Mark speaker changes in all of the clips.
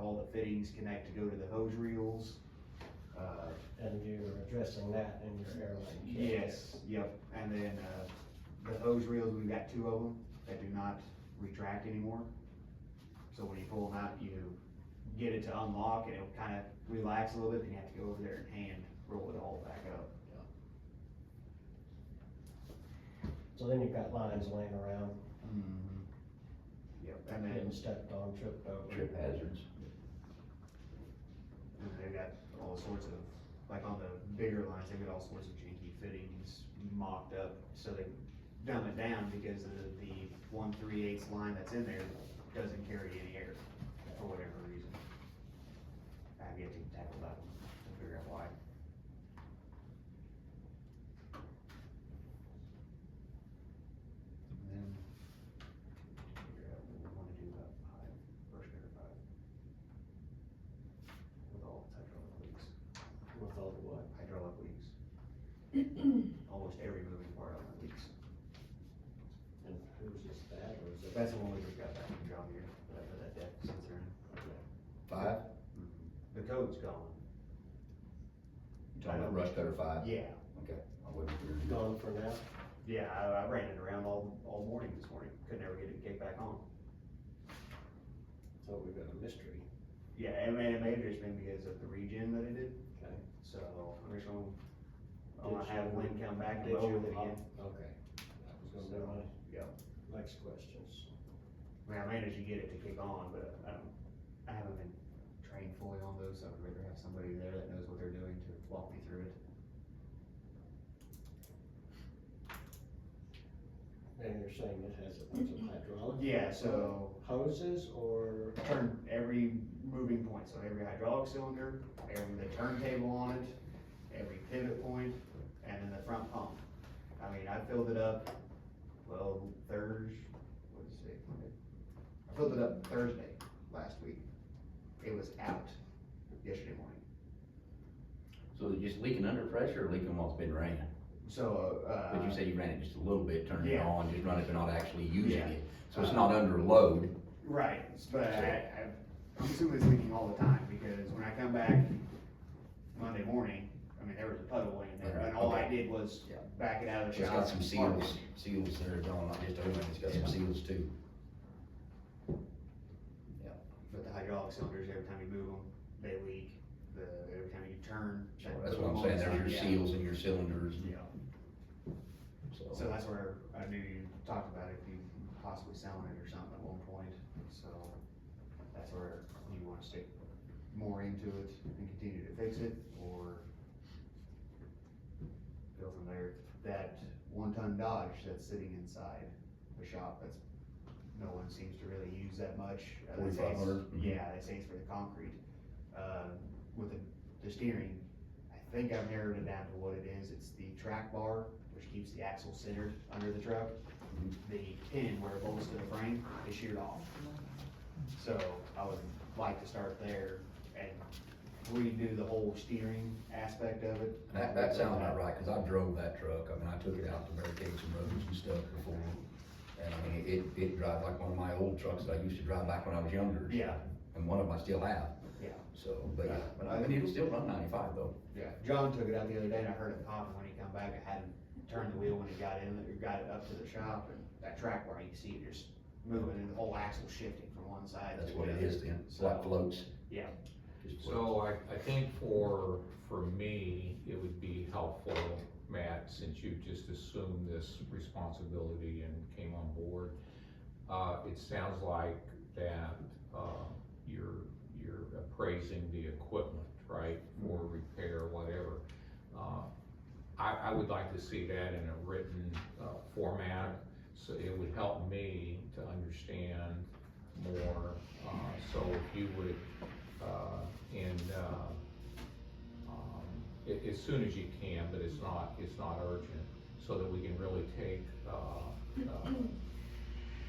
Speaker 1: all the fittings connect to go to the hose reels. Uh,
Speaker 2: And you're addressing that in your airline.
Speaker 1: Yes, yep, and then, uh, the hose reels, we've got two of them that do not retract anymore. So when you pull them out, you get it to unlock and it'll kind of relax a little bit, then you have to go over there and hand roll it all back up.
Speaker 2: So then you've got lines laying around,
Speaker 1: Yep, and
Speaker 2: getting
Speaker 1: then,
Speaker 2: stepped on, tripped over.
Speaker 3: trip hazards.
Speaker 1: and Mm, they've got all sorts of, like on the bigger lines, they've got all sorts of janky fittings mocked up, so they dumb it down because the, the one three eighths line that's in there doesn't carry any air for whatever reason. I've yet to tackle that one, to figure out why. And then, figure out what we wanna do about pipe, brush cutter pipe. With all the hydraulic leaks,
Speaker 2: With all the what?
Speaker 1: hydraulic leaks. Almost every moving part on the leaks.
Speaker 2: And who's this bad or is it?
Speaker 1: That's the one we just got back from John here, whatever that depth sensor in.
Speaker 3: Five,
Speaker 1: The code's gone.
Speaker 3: you talking about rush cutter five?
Speaker 1: Yeah,
Speaker 3: I wasn't sure.
Speaker 2: Gone for now?
Speaker 1: yeah, I, I ran it around all, all morning this morning, could never get it kicked back on.
Speaker 2: So we've got a mystery.
Speaker 1: Yeah, and may, it may have just been because of the regen that it did,
Speaker 2: Okay.
Speaker 1: so I'm just gonna, I'm gonna
Speaker 2: Did
Speaker 1: have
Speaker 2: you-
Speaker 1: Lynn come back and
Speaker 2: Did
Speaker 1: lower
Speaker 2: you
Speaker 1: it again.
Speaker 2: lock- Okay. That was gonna be my.
Speaker 1: Yeah.
Speaker 2: Next questions.
Speaker 1: I mean, I managed to get it to kick on, but I don't, I haven't been trained fully on those, so I'd rather have somebody there that knows what they're doing to walk me through it.
Speaker 2: And you're saying it has a bunch of hydraulic?
Speaker 1: Yeah, so
Speaker 2: Hoses or?
Speaker 1: turn every moving point, so every hydraulic cylinder, every, the turntable on it, every pivot point, and then the front pump. I mean, I filled it up, well, Thursday, what's it, Monday? I filled it up Thursday last week. It was out yesterday morning.
Speaker 3: So they're just leaking under pressure or leaking while it's been ran?
Speaker 1: So, uh.
Speaker 3: But you said you ran it just a little bit, turned it
Speaker 1: yeah.
Speaker 3: on, just run it, but not actually using
Speaker 1: Yeah.
Speaker 3: it. So it's not under load.
Speaker 1: Right, but I, I, I'm assuming it's leaking all the time, because when I come back Monday morning, I mean, there was a puddle in there, and all I did was
Speaker 3: Yeah.
Speaker 1: back it out of
Speaker 3: It's
Speaker 1: the shower.
Speaker 3: got some
Speaker 1: and park
Speaker 3: seals,
Speaker 1: it.
Speaker 3: seals there, John, not just open, it's got some seals too.
Speaker 1: But the hydraulic cylinders, every time you move them, they leak, the, every time you turn. that
Speaker 3: That's what I'm
Speaker 1: boom on
Speaker 3: saying,
Speaker 1: the
Speaker 3: there's your
Speaker 1: side,
Speaker 3: seals and your cylinders,
Speaker 1: Yeah, Yeah. so
Speaker 3: so.
Speaker 1: that's where I knew you talked about if you possibly selling it or something at one point, so that's where you wanna stick more into it and continue to fix it, or go from there. That one-ton Dodge that's sitting inside the shop, that's, no one seems to really use that much. Uh, they say it's-
Speaker 3: 4500? Mhm.
Speaker 1: Yeah, they say it's for the concrete. Uh, with the, the steering, I think I've narrowed it down to what it is, it's the track bar, which keeps the axle centered under the truck.
Speaker 3: Mhm.
Speaker 1: The pin where it bolts to the frame is sheared off. So I would like to start there and redo the whole steering aspect of it.
Speaker 3: That, that sounds about right, cause I drove that truck, I mean, I took it out to barricade some roads and stuff before. And I mean, it, it drives like one of my old trucks that I used to drive back when I was younger.
Speaker 1: Yeah,
Speaker 3: And one of them I still have.
Speaker 1: Yeah.
Speaker 3: So, but yeah, but I mean, it'll still run ninety-five though.
Speaker 1: yeah. John took it out the other day and I heard him coughing when he come back. I had him turn the wheel when he got in, or got it up to the shop and that track bar, you can see it just moving and the whole axle shifting from one side to the
Speaker 3: That's
Speaker 1: other.
Speaker 3: what it is then, it's like floats.
Speaker 1: Yeah.
Speaker 3: Just floats.
Speaker 4: So I, I think for, for me, it would be helpful, Matt, since you just assumed this responsibility and came on board. Uh, it sounds like that, uh, you're, you're appraising the equipment, right, for repair, whatever. Uh, I, I would like to see that in a written, uh, format, so it would help me to understand more. Uh, so if you would uh, and, uh, um, a- as soon as you can, but it's not, it's not urgent, so that we can really take, uh, uh,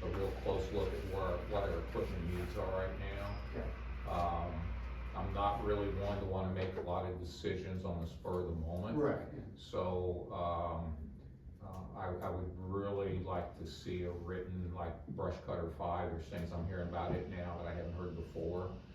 Speaker 4: a real close look at where, what our equipment needs are right now. Um, I'm not really one to wanna make a lot of decisions on the spur of the moment.
Speaker 1: Right.
Speaker 4: So, um, uh, I, I would really like to see a written, like brush cutter five, or things I'm hearing about it now that I haven't heard before.